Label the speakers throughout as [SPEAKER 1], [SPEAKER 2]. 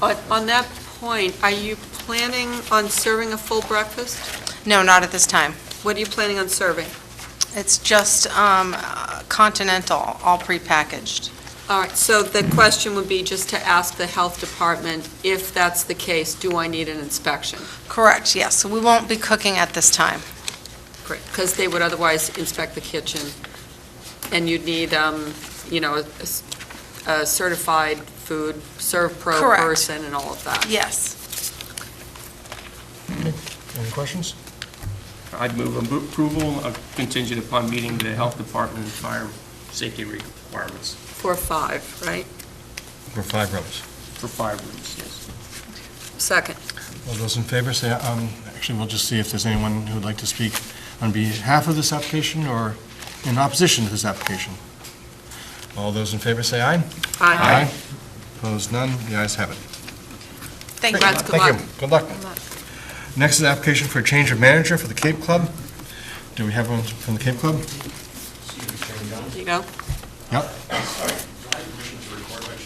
[SPEAKER 1] On on that point, are you planning on serving a full breakfast?
[SPEAKER 2] No, not at this time.
[SPEAKER 1] What are you planning on serving?
[SPEAKER 2] It's just um, continental, all prepackaged.
[SPEAKER 1] All right, so the question would be just to ask the health department, if that's the case, do I need an inspection?
[SPEAKER 2] Correct, yes. We won't be cooking at this time.
[SPEAKER 1] Because they would otherwise inspect the kitchen, and you'd need, um, you know, a s- a certified food serve pro
[SPEAKER 2] Correct.
[SPEAKER 1] person and all of that.
[SPEAKER 2] Yes.
[SPEAKER 3] Any questions?
[SPEAKER 4] I'd move abo- approval uh, contingent upon meeting the health department and fire safety requirements
[SPEAKER 1] For five, right?
[SPEAKER 3] For five rooms.
[SPEAKER 4] for fire rooms, yes.
[SPEAKER 1] Second.
[SPEAKER 3] All those in favor, say, um, actually, we'll just see if there's anyone who would like to speak on behalf of this application or in opposition to this application. All those in favor, say aye.
[SPEAKER 1] Aye.
[SPEAKER 3] Opposed, none, the ayes have it.
[SPEAKER 2] Thank you.
[SPEAKER 1] Congrats, good luck.
[SPEAKER 3] Thank you. Good luck.
[SPEAKER 2] luck.
[SPEAKER 3] Next is the application for a change of manager for the Cape Club. Do we have one from the Cape Club?
[SPEAKER 1] There you go.
[SPEAKER 3] Yep. Uh,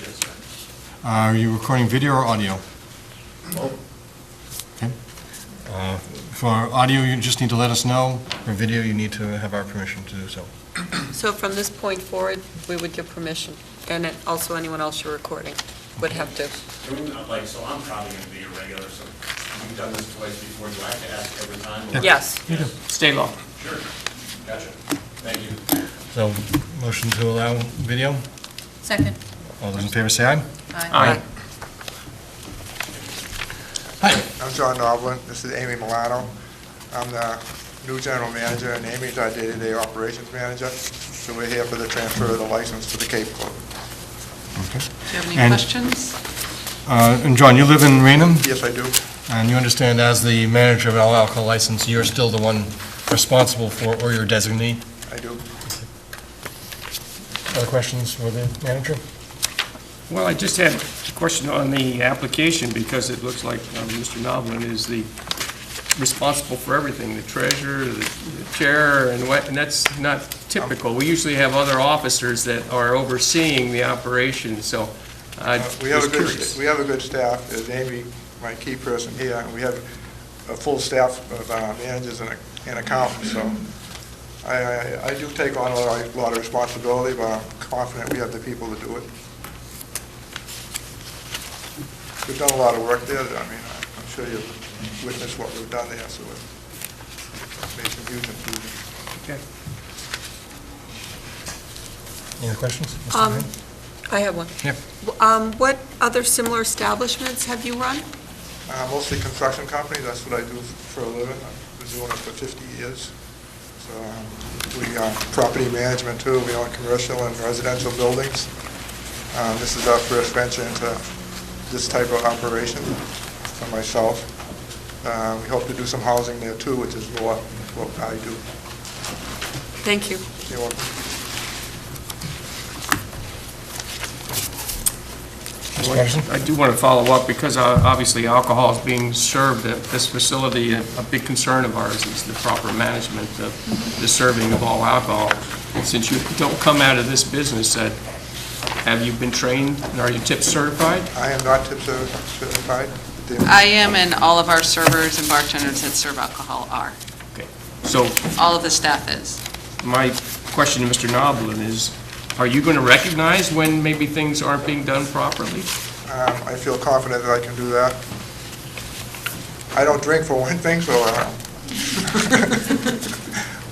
[SPEAKER 3] Are you recording video or audio? Okay. Uh, For audio, you just need to let us know. For video, you need to have our permission to do so.
[SPEAKER 1] So from this point forward, we would give permission, and then also anyone else you're recording would have to.
[SPEAKER 5] doing, uh, like, so I'm probably gonna be a regular, so you've done this twice before, do I have to ask every time? or-
[SPEAKER 1] Yes.
[SPEAKER 4] State law.
[SPEAKER 5] Sure, gotcha, thank you.
[SPEAKER 3] So, motion to allow video?
[SPEAKER 1] Second.
[SPEAKER 3] All those in favor say aye.
[SPEAKER 4] Aye.
[SPEAKER 6] I'm John Noblin, this is Amy Milano. I'm the new general manager, and Amy's our day-to-day operations manager, so we're here for the transfer of the license to the Cape Club.
[SPEAKER 1] Do you have any
[SPEAKER 3] And-
[SPEAKER 1] questions?
[SPEAKER 3] Uh, And John, you live in Rainham,
[SPEAKER 6] Yes, I do.
[SPEAKER 3] and you understand as the manager of all alcohol license, you're still the one responsible for, or your designee?
[SPEAKER 6] I do.
[SPEAKER 3] Other questions for the manager?
[SPEAKER 4] Well, I just had a question on the application, because it looks like um, Mr. Noblin is the responsible for everything, the treasurer, the the chair, and what, and that's not typical. We usually have other officers that are overseeing the operation, so I
[SPEAKER 6] Uh,
[SPEAKER 4] was
[SPEAKER 6] We have a good,
[SPEAKER 4] curious.
[SPEAKER 6] we have a good staff, as Amy, my key person here, and we have a full staff of uh, managers and and accountants, so I, I- I do take on a lot of- lot of responsibility, but I'm confident we have the people to do it. We've done a lot of work there, I mean, I'm sure you've witnessed what we've done there, so it's made some huge improvements.
[SPEAKER 3] Any other questions? Mr.
[SPEAKER 1] Um,
[SPEAKER 3] Mayor?
[SPEAKER 1] I have one.
[SPEAKER 3] Yep.
[SPEAKER 1] Um, What other similar establishments have you run?
[SPEAKER 6] Uh, Mostly construction companies, that's what I do for a living. I've been doing it for 50 years. So um, we, uh, property management too, we own commercial and residential buildings. Uh, This is our first venture into this type of operation for myself. Uh, We hope to do some housing there too, which is what what I do.
[SPEAKER 1] Thank you.
[SPEAKER 6] You're welcome.
[SPEAKER 3] Mr. Patterson?
[SPEAKER 4] I do want to follow up, because uh, obviously alcohol is being served at this facility. A a big concern of ours is the proper management of the serving of all alcohol. Since you don't come out of this business, uh, have you been trained, and are you tip certified?
[SPEAKER 6] I am not tip certi- certified.
[SPEAKER 7] I am, and all of our servers and bartenders that serve alcohol are.
[SPEAKER 4] So
[SPEAKER 7] All of the staff is.
[SPEAKER 4] my question to Mr. Noblin is, are you going to recognize when maybe things aren't being done properly?
[SPEAKER 6] Um, I feel confident that I can do that. I don't drink for one thing, so uh,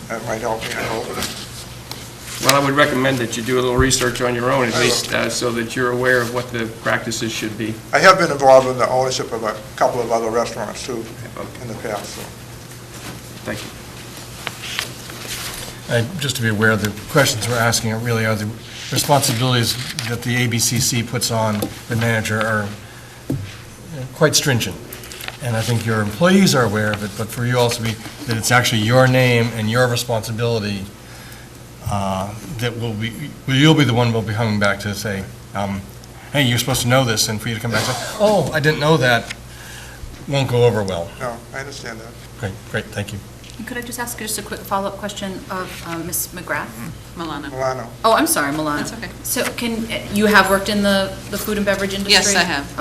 [SPEAKER 6] that might help me, I hope.
[SPEAKER 4] Well, I would recommend that you do a little research on your own, at
[SPEAKER 6] I will.
[SPEAKER 4] least, uh, so that you're aware of what the practices should be.
[SPEAKER 6] I have been involved in the ownership of a couple of other restaurants too in the past, so.
[SPEAKER 4] Thank you.
[SPEAKER 3] Uh, Just to be aware, the questions we're asking are really are the responsibilities that the ABCC puts on the manager are uh, quite stringent. And I think your employees are aware of it, but for you also be, that it's actually your name and your responsibility uh, that will be, well, you'll be the one who'll be hung back to say, um, hey, you're supposed to know this, and for you to come back and say, oh, I didn't know that, won't go over well.
[SPEAKER 6] No, I understand that.
[SPEAKER 3] Great, great, thank you.
[SPEAKER 8] Could I just ask just a quick follow-up question of uh, Ms. McGrath?
[SPEAKER 7] Milana.
[SPEAKER 6] Milano.
[SPEAKER 8] Oh, I'm sorry, Milana.
[SPEAKER 7] That's okay.
[SPEAKER 8] So can, you have worked in the the food and beverage industry?
[SPEAKER 7] Yes, I have.